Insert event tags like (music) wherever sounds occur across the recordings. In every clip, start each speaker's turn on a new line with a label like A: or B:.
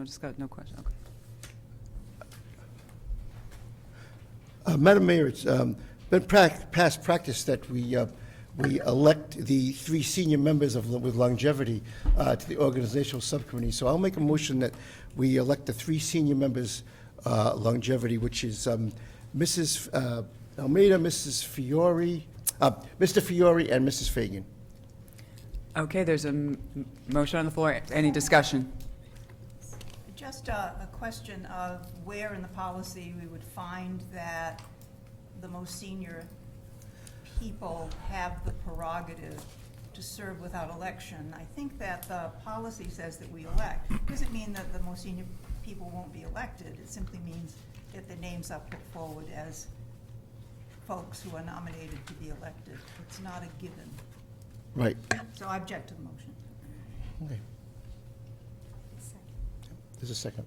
A: No discuss, no question, okay.
B: Uh, Madam Mayor, it's um, been prac- past practice that we, uh, we elect the three senior members of, with longevity uh, to the organizational subcommittee. So I'll make a motion that we elect the three senior members uh, longevity, which is um, Mrs. uh, Almeida, Mrs. Fiore, uh, Mr. Fiore, and Mrs. Fagan.
A: Okay, there's a m- motion on the floor, any discussion?
C: Just a, a question of where in the policy we would find that the most senior people have the prerogative to serve without election. I think that the policy says that we elect. Doesn't mean that the most senior people won't be elected. It simply means that the names are put forward as folks who are nominated to be elected. It's not a given.
B: Right.
C: So I object to the motion.
B: Okay. There's a second.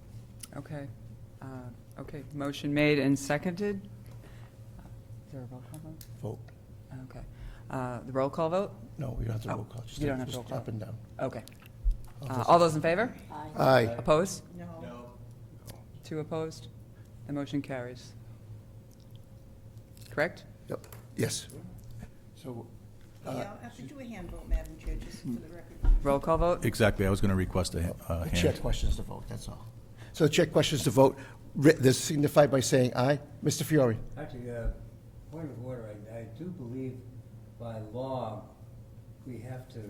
A: Okay, uh, okay, motion made and seconded. Is there a roll call vote?
B: Vote.
A: Okay, Uh, the roll call vote?
B: No, we don't have to
A: Oh,
B: roll call. Just
A: you don't have to
B: just
A: roll call.
B: Up and down.
A: Okay. Uh, All those in favor?
B: Aye.
A: Opposed?
C: No.
A: Two opposed? The motion carries. Correct?
B: Yep. Yes. So
C: Yeah, I have to do a hand vote, Madam Chair, just for the record.
A: Roll call vote?
D: Exactly, I was going to request a a
B: The chair
D: uh, hand.
B: questions the vote, that's all. So the chair questions the vote, Ri- this signified by saying aye. Mr. Fiore?
E: Actually, uh, point of order, I, I do believe by law, we have to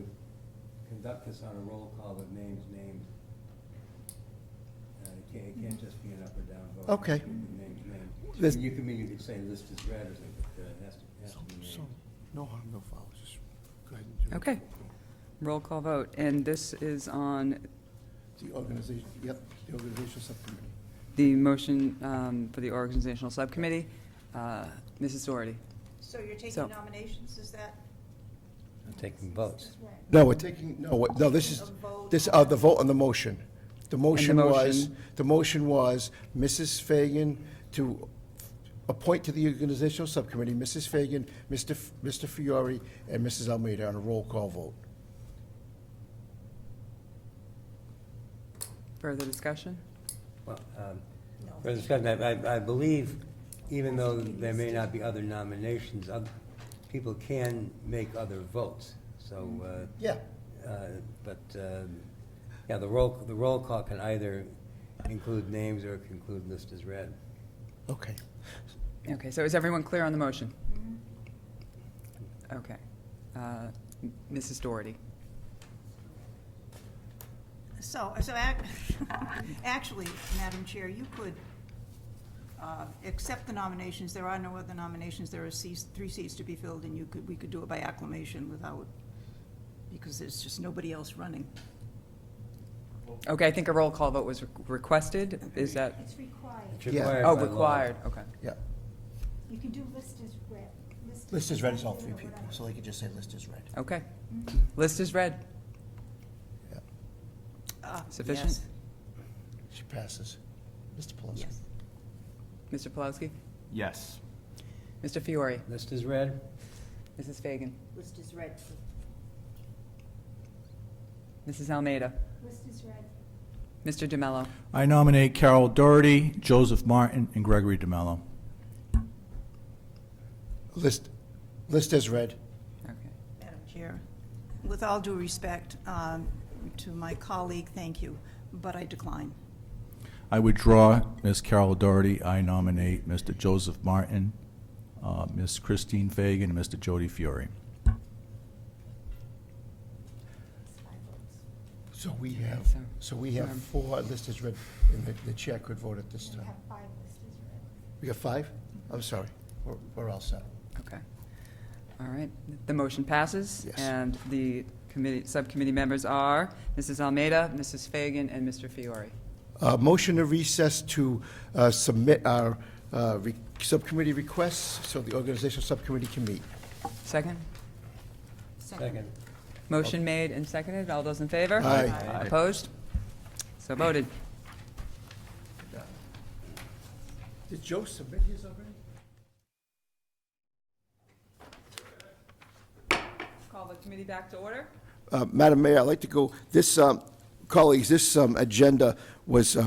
E: conduct this on a roll call that names names. Uh, it can't, it can't just be an up or down vote.
B: Okay.
E: Names names.
B: This-
E: You can mean, you could say list is red or something, but uh, it has to, it has to be named.
B: No harm, no foul, just go ahead
A: Okay. Roll call vote, and this is on
B: The organization, yep, the organizational subcommittee.
A: the motion um, for the organizational subcommittee. Uh, Mrs. Doherty?
C: So you're
A: So-
C: taking nominations, is that?
E: Taking votes.
B: No, we're taking, no, what- no, this is, this, uh, the vote on the motion. The motion was,
A: motion-
B: the motion was Mrs. Fagan to appoint to the organizational subcommittee, Mrs. Fagan, Mr. F- Mr. Fiore, and Mrs. Almeida on a roll call vote.
A: Further discussion?
E: Well, um, for discussion, I, I- I believe, even though there may not be other nominations, oth- people can make other votes, so,
B: Yeah.
E: uh, uh, but, um, yeah, the roll, the roll call can either include names or it can include list as read.
B: Okay.
A: Okay, so is everyone clear on the motion?
C: Mm-hmm.
A: Okay. Uh, m- Mrs. Doherty?
C: So, so ac- (laughs) actually, Madam Chair, you could uh, accept the nominations, there are no other nominations, there are seats, three seats to be filled, and you could, we could do it by acclamation without, because there's just nobody else running.
A: Okay, I think a roll call vote was re- requested. Is that,
F: It's required.
E: It's
B: Yeah.
E: required
A: oh,
E: by law.
A: required, okay.
B: Yeah.
F: You can do list as read.
B: List is red is all three people, so they could just say list is red.
A: Okay. List is read.
C: Ah,
A: Sufficient?
C: yes,
B: She passes. Mr. Pelisi?
C: Yes.
A: Mr. Polowski?
D: Yes.
A: Mr. Fiore?
E: List is read?
A: Mrs. Fagan?
F: List is read.
A: Mrs. Almeida?
F: List is read.
A: Mr. DeMello?
D: I nominate Carol Doherty, Joseph Martin, and Gregory DeMello.
B: List, list is red.
A: Okay.
C: Madam Chair. With all due respect um, to my colleague, thank you, but I decline.
D: I withdraw Ms. Carol Doherty. I nominate Mr. Joseph Martin, uh, Ms. Christine Fagan, and Mr. Jody Fiore.
F: It's five votes.
B: So we have,
A: So-
B: so we have
A: Um,
B: four, list is red, and the, the chair could vote at this
F: We
B: time.
F: have five list is read.
B: We have five? I'm sorry, we're, we're all set.
A: Okay. All right. The motion passes.
B: Yes.
A: And the committee, subcommittee members are Mrs. Almeida, Mrs. Fagan, and Mr. Fiore.
B: Uh, motion to recess to, uh, submit our, uh, re- subcommittee requests, so the organizational subcommittee can meet.
A: Second?
E: Second.
A: Motion made and seconded. All those in favor?
B: Aye.
A: Opposed? So voted.
B: Did Joe submit his already?
A: Call the committee back to order.
B: Uh, Madam Mayor, I'd like to go, this um, colleagues, this um, agenda was uh,